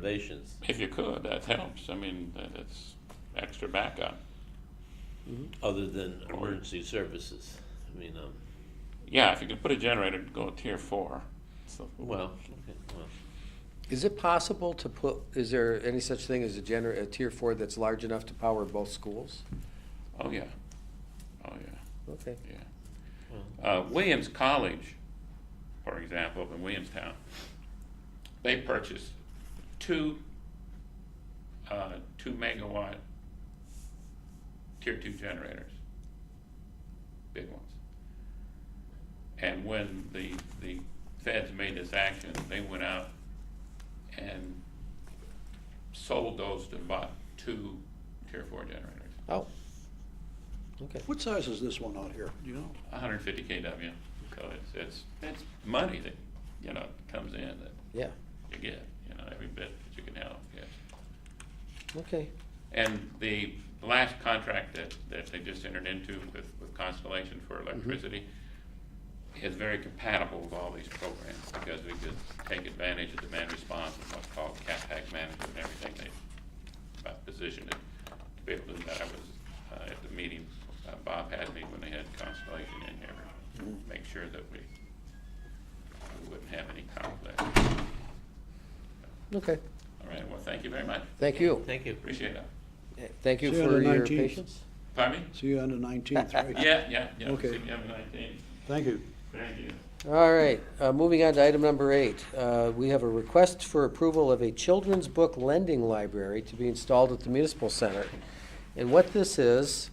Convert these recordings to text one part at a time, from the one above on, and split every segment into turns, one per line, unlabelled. renovations.
If you could, that helps. I mean, that- that's extra backup.
other than emergency services. I mean, um,
Yeah, if you could put a generator, go tier four. So,
well, okay, well,
Is it possible to put, is there any such thing as a gener, a tier four that's large enough to power both schools?
oh yeah, oh yeah,
Okay.
yeah. Uh, Williams College, for example, up in Williamstown, they purchased two, uh, two megawatt tier two generators, big ones. And when the, the feds made this action, they went out and sold those to bought two tier four generators,
Oh. Okay.
What size is this one out here? Do you know?
hundred and fifty KW. So it's, it's, it's money that, you know, comes in that
Yeah,
you get, you know, every bit that you can help, yes.
okay.
And the last contract that, that they just entered into with, with Constellation for electricity is very compatible with all these programs, because we could take advantage of demand response and what's called CapEx management and everything they uh, positioned it to be able to do that. I was uh, at the meeting, uh, Bob had me when they had Constellation in here, to make sure that we, we wouldn't have any conflict.
Okay,
All right, well, thank you very much,
thank you.
thank you.
appreciate it.
Thank you
See you on
for
the
your
19th.
patience.
Pardon me?
See you on the nineteenth, right?
Yeah, yeah, yeah.
Okay.
September 19th.
Thank you.
Thank you.
All right, uh, moving on to item number eight. Uh, we have a request for approval of a children's book lending library to be installed at the municipal center. And what this is,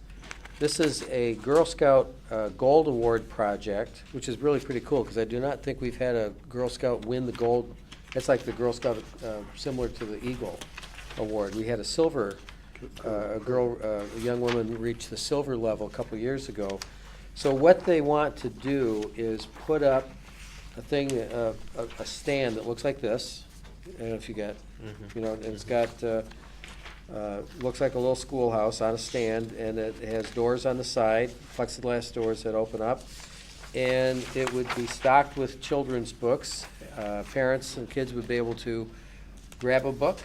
this is a Girl Scout uh, Gold Award project, which is really pretty cool, because I do not think we've had a Girl Scout win the gold. It's like the Girl Scout, uh, similar to the Eagle Award. We had a silver, uh, a girl, uh, a young woman reached the silver level a couple years ago. So what they want to do is put up a thing, uh, a, a stand that looks like this. I don't know if you got, you know, and it's got, uh, uh, looks like a little schoolhouse on a stand, and it has doors on the side, plexiglass doors that open up. And it would be stocked with children's books. Uh, Parents and kids would be able to grab a book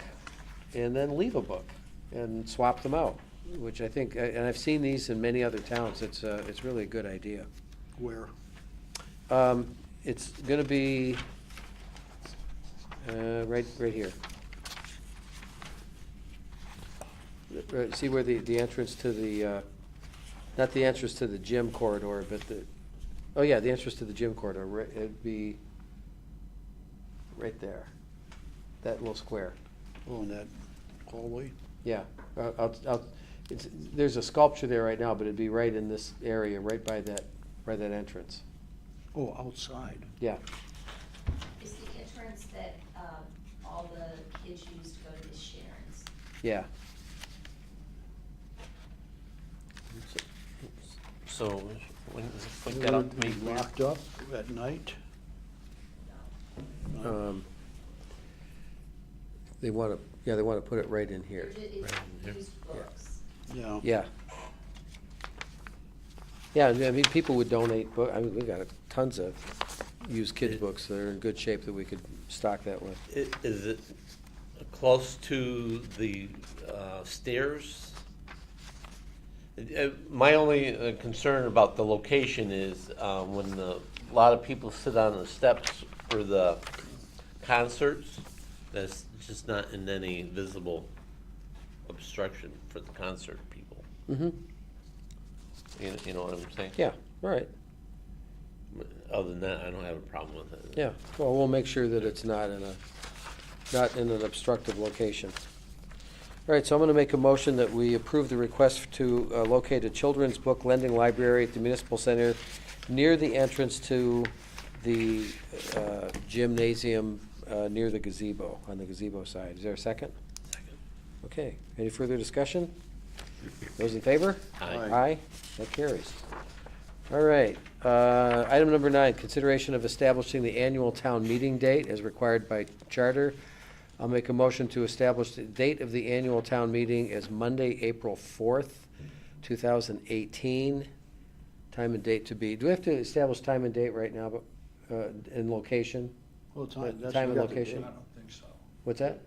and then leave a book and swap them out, which I think, and I've seen these in many other towns. It's, uh, it's really a good idea.
Where?
Um, It's going to be uh, right, right here. Right, Uh, See where the, the entrance to the, uh, not the entrance to the gym corridor, but the, oh yeah, the entrance to the gym corridor, right- it'd be right there, that little square.
Oh, in that hallway?
Yeah, uh, out, out, it's, there's a sculpture there right now, but it'd be right in this area, right by that, by that entrance.
Oh, outside.
Yeah,
Is the entrance that um, all the kids use to go to Miss Sharon's?
yeah.
So, when, when got up to me,
Be Locked up at night? No.
Um, They want to, yeah, they want to put it right in here.
It's used books.
Yeah.
Yeah. Yeah, I mean, people would donate book, I mean, we've got tons of used kid books that are in good shape that we could stock that with.
i- is it close to the uh, stairs? Uh, My only uh, concern about the location is uh, when the, a lot of people sit on the steps for the concerts, that's just not in any visible obstruction for the concert people.
Mm-hmm,
You you know what I'm saying?
yeah, all right,
Other than that, I don't have a problem with it.
yeah. Well, we'll make sure that it's not in a, not in an obstructive location. All right, so I'm going to make a motion that we approve the request to uh, locate a children's book lending library at the municipal center near the entrance to the uh, gymnasium uh, near the gazebo, on the gazebo side. Is there a second?
Second.
Okay, any further discussion? Those in favor?
Aye.
Aye, that carries. All right, uh, item number nine, consideration of establishing the annual town meeting date as required by charter. I'll make a motion to establish the date of the annual town meeting as Monday, April fourth, two thousand eighteen. Time and date to be, do we have to establish time and date right now, but, uh, and location?
Well, time,
What
that's.
time and
we got the
location?
date.
What's that?